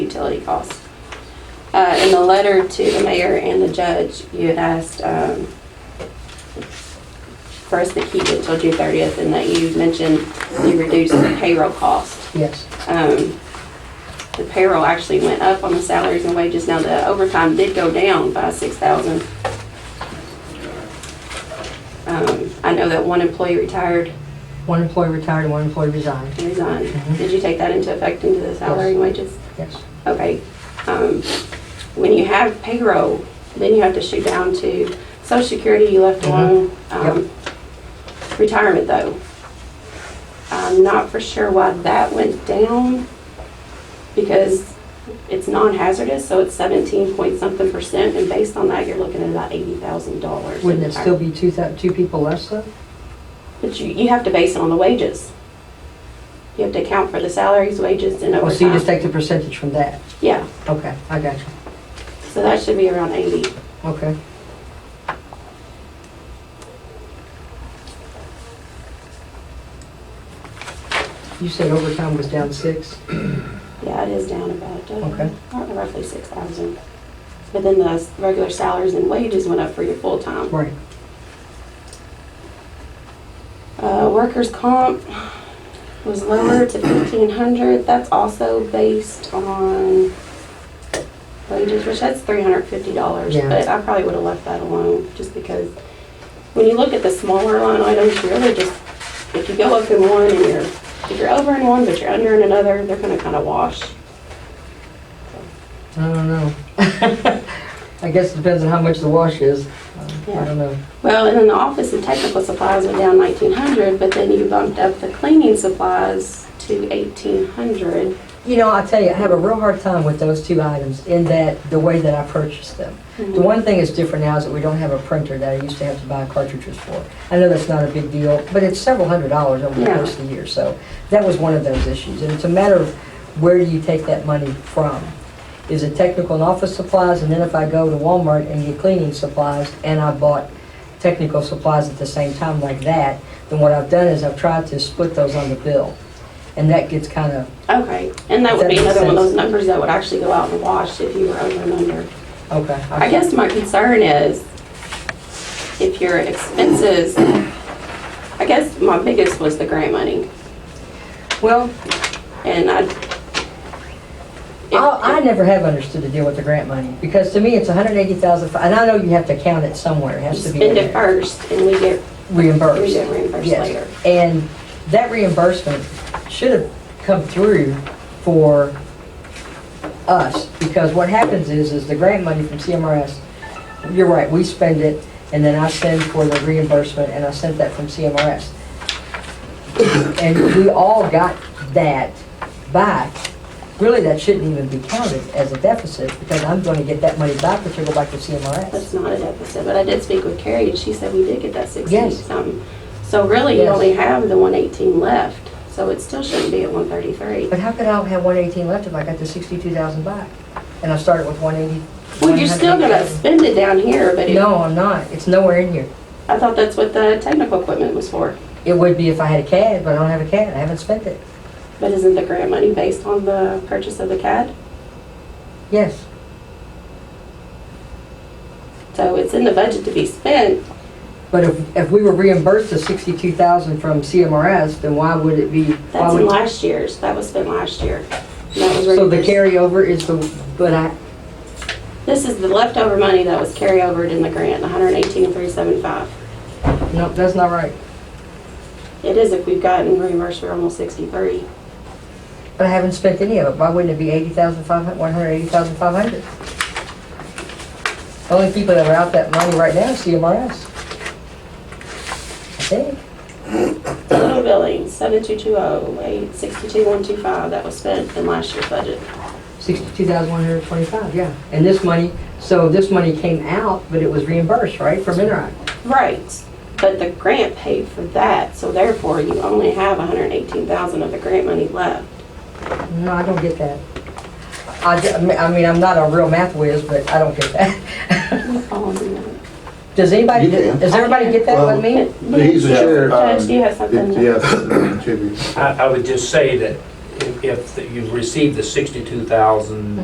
utility costs. Uh, in the letter to the mayor and the judge, you had asked, um, for us to keep it till June thirtieth and that you mentioned you reduced the payroll cost. Yes. Um, the payroll actually went up on the salaries and wages. Now the overtime did go down by six thousand. Um, I know that one employee retired One employee retired and one employee resigned. and resigned. Did you take that into effect into the salary and wages? Yes. Okay. Um, when you have payroll, then you have to shoot down to social security, you left Mhm. alone. Yep. Um, Retirement though, I'm not for sure why that went down because it's non-hazardous, so it's seventeen point something percent and based on that, you're looking at about eighty thousand dollars. Wouldn't it still be two, thou- two people less though? But you, you have to base it on the wages. You have to account for the salaries, wages and Oh, so you just overtime. take the percentage from that? Yeah, Okay, I got you. so that should be around eighty. Okay. You said overtime was down six? Yeah, it is down about, uh, Okay. I don't know, roughly six thousand. But then the s- regular salaries and wages went up for your full-time. Right. Uh, workers' comp was lower to fifteen hundred, that's also based on wages, which that's three hundred fifty dollars. Yeah. But I probably would have left that alone, just because when you look at the smaller line items, you're really just, if you go up in one and you're, if you're over in one but you're under in another, they're gonna kind of wash. I don't know. I guess it depends on how much the wash is. Uh, I Yeah. don't know. Well, and then the office and technical supplies were down nineteen hundred, but then you bumped up the cleaning supplies to eighteen hundred. You know, I tell you, I have a real hard time with those two items in that, the way that I purchased them. The one thing that's different now is that we don't have a printer that I used to have to buy cartridges for. I know that's not a big deal, but it's several hundred dollars over the Yeah. course of the year, so that was one of those issues. And it's a matter of where do you take that money from? Is it technical and office supplies, and then if I go to Walmart and get cleaning supplies, and I bought technical supplies at the same time like that, then what I've done is I've tried to split those on the bill. And that gets kind of, Okay, and that would be Does that make another one of those sense? numbers that would actually go out in the wash if you were over and under. okay. I guess my concern is if your expenses, I guess my biggest was the grant money, Well, and I. Oh, I, I never have understood the deal with the grant money, because to me, it's $180,000, and I know you have to count it somewhere, it has to be in Spend it there. first, and we get, we reimbursed. get reimbursed Yes. later. And that reimbursement should have come through for us, because what happens is, is the grant money from CMRS, you're right, we spend it, and then I send for the reimbursement, and I sent that from CMRS. And we all got that back. Really, that shouldn't even be counted as a deficit, because I'm gonna get that money back, which will go back to CMRS. That's not a deficit, but I did speak with Carrie, and she said we did get that sixteen Yes. something. So really, you Yes. only have the one eighteen left, so it still shouldn't be at one thirty-three. But how could I have one eighteen left if I got the sixty-two thousand back? And I started with one eighty? Well, you're still gonna spend it down here, but it- No, I'm not. It's nowhere in here. I thought that's what the technical equipment was for. It would be if I had a CAD, but I don't have a CAD. I haven't spent it. But isn't the grant money based on the purchase of the CAD? Yes. So it's in the budget to be spent, But if, if we were reimbursed the sixty-two thousand from CMRS, then why would it be? why that's in would- last year's, that was spent last year. And that was So the reimbursed. carryover is the, but I, This is the leftover money that was carryover in the grant, hundred and eighteen, three seven five. no, that's not right. It is if we've gotten reimbursed for almost sixty-three. But I haven't spent any of it. Why wouldn't it be eighty thousand five hundred, one hundred eighty thousand five hundred? The only people that are out that money right now is CMRS. I think. Total billing, seven two two oh, eight sixty-two one two five, that was spent in last year's budget. 62,125, yeah. And this money, so this money came out, but it was reimbursed, right, from Enron? Right, but the grant paid for that, so therefore you only have a hundred and eighteen thousand of the grant money left. No, I don't get that. I, d- I mean, I'm not a real math whiz, but I don't get that. Oh, no. Does anybody, You can. does everybody get that with me? He's the sheriff. Judge, do you have something? Yeah, contribute. I, I would just say that if- if you received the sixty-two thousand